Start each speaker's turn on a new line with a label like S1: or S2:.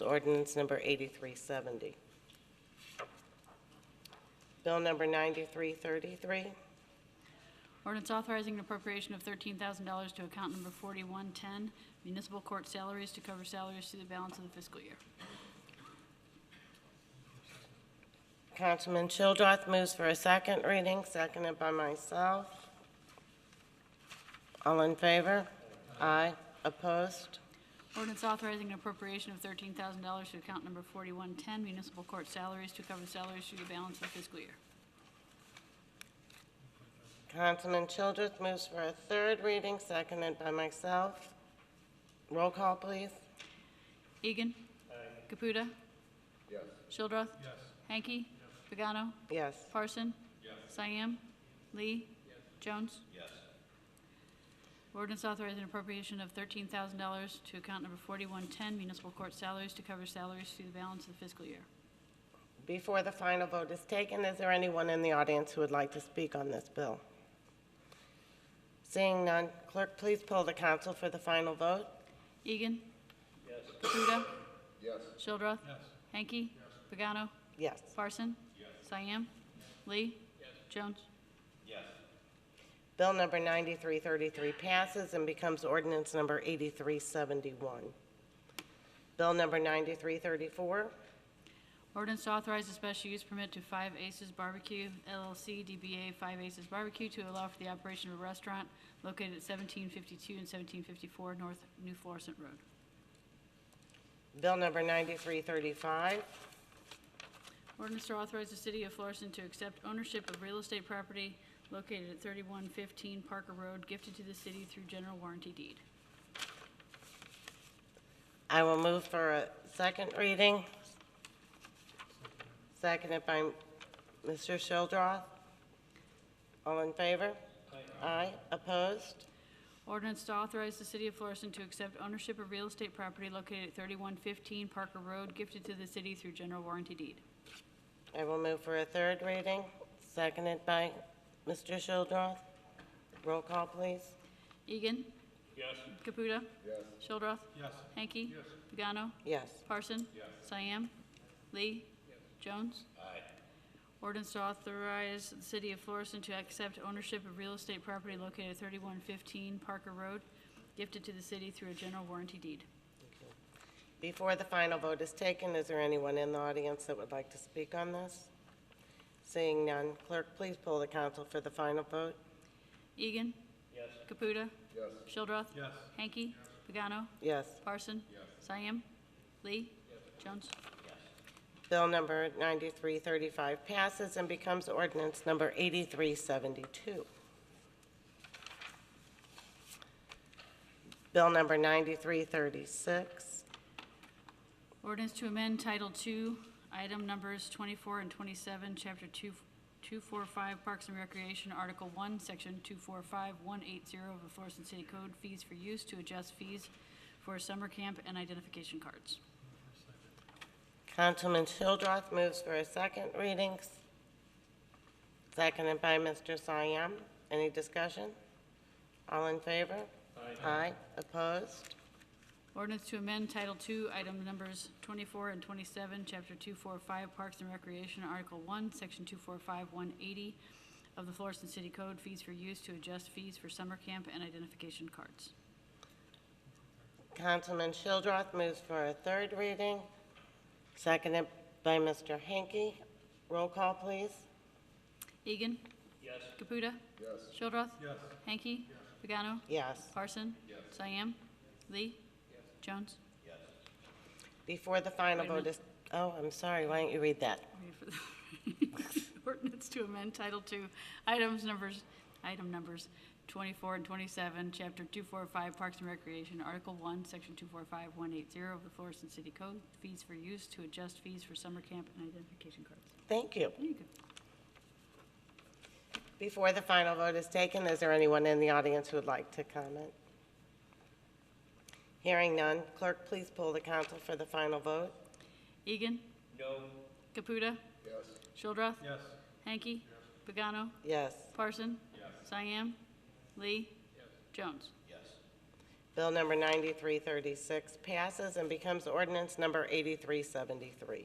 S1: ordinance number 8370. Bill number 9333,
S2: Ordinance authorizing an appropriation of thirteen thousand dollars to account number forty-one-ten, municipal court salaries to cover salaries through the balance of the fiscal year.
S1: Councilman Childrath moves for a second reading, seconded by myself. All in favor? Aye. Opposed?
S2: Ordinance authorizing an appropriation of thirteen thousand dollars to account number forty-one-ten, municipal court salaries to cover salaries through the balance of the fiscal year.
S1: Councilman Childrath moves for a third reading, seconded by myself. Roll call, please.
S2: Egan. Caputa. Yes. Shildroth. Yes. Hanky. Pagano.
S1: Yes.
S2: Parson. Yes. Cyan. Lee. Jones. Yes. Ordinance authorizing appropriation of thirteen thousand dollars to account number forty-one-ten municipal court salaries to cover salaries through the balance of the fiscal year.
S1: Before the final vote is taken, is there anyone in the audience who would like to speak on this bill? Seeing none, clerk, please poll the council for the final vote.
S2: Egan. Yes. Caputa. Yes. Shildroth. Yes. Hanky. Yes. Pagano.
S1: Yes.
S2: Parson. Yes. Cyan. Lee. Yes. Jones.
S1: Bill number 9333 passes and becomes ordinance number 8371. Bill number 9334,
S2: Ordinance to authorize a special use permit to Five Aces Barbecue LLC, DBA Five Aces Barbecue, to allow for the operation of a restaurant located at 1752 and 1754 North New Florissant Road.
S1: Bill number 9335,
S2: Ordinance to authorize the city of Florissant to accept ownership of real estate property located at 3115 Parker Road, gifted to the city through general warranty deed.
S1: I will move for a second reading. Seconded by Mr. Shildroth. All in favor? Aye. Opposed?
S2: Ordinance to authorize the city of Florissant to accept ownership of real estate property located at 3115 Parker Road, gifted to the city through general warranty deed.
S1: I will move for a third reading. Seconded by Mr. Shildroth. Roll call, please.
S2: Egan. Yes. Caputa. Yes. Shildroth. Yes. Hanky. Yes. Pagano.
S1: Yes.
S2: Parson. Yes. Cyan. Lee. Jones. Aye. Ordinance to authorize the city of Florissant to accept ownership of real estate property located at 3115 Parker Road, gifted to the city through a general warranty deed.
S1: Before the final vote is taken, is there anyone in the audience that would like to speak on this? Seeing none, clerk, please poll the council for the final vote.
S2: Egan. Yes. Caputa. Yes. Shildroth. Yes. Hanky. Pagano.
S1: Yes.
S2: Parson. Yes. Cyan. Lee. Jones.
S1: Bill number 9335 passes and becomes ordinance number 8372. Bill number 9336,
S2: Ordinance to amend Title II, item numbers 24 and 27, Chapter 2 245 Parks and Recreation, Article 1, Section 245180 of the Florissant City Code, fees for use to adjust fees for summer camp and identification cards.
S1: Councilman Childrath moves for a second reading, seconded by Mr. Siam. Any discussion? All in favor? Aye. opposed?
S2: Ordinance to amend Title II, item numbers 24 and 27, Chapter 245 Parks and Recreation, Article 1, Section 245180 of the Florissant City Code, fees for use to adjust fees for summer camp and identification cards.
S1: Councilman Childrath moves for a third reading, seconded by Mr. Hanky. Roll call, please.
S2: Egan. Yes. Caputa. Yes. Shildroth. Yes. Hanky. Pagano.
S1: Yes.
S2: Parson. Yes. Cyan. Lee. Yes. Jones.
S1: Before the final
S2: Wait a
S1: vote is, oh, I'm sorry, why don't you read that?
S2: Wait for the- Ordinance to amend Title II, items numbers, item numbers 24 and 27, Chapter 245 Parks and Recreation, Article 1, Section 245180 of the Florissant City Code, fees for use to adjust fees for summer camp and identification cards.
S1: Thank you.
S2: There you go.
S1: Before the final vote is taken, is there anyone in the audience who would like to comment? Hearing none, clerk, please pull the council for the final vote.
S2: Egan. No. Caputa. Yes. Shildroth. Yes. Hanky. Yes. Pagano.
S1: Yes.
S2: Parson. Yes. Cyan. Lee. Yes. Jones.
S1: Bill number 9336 passes and becomes ordinance number 8373.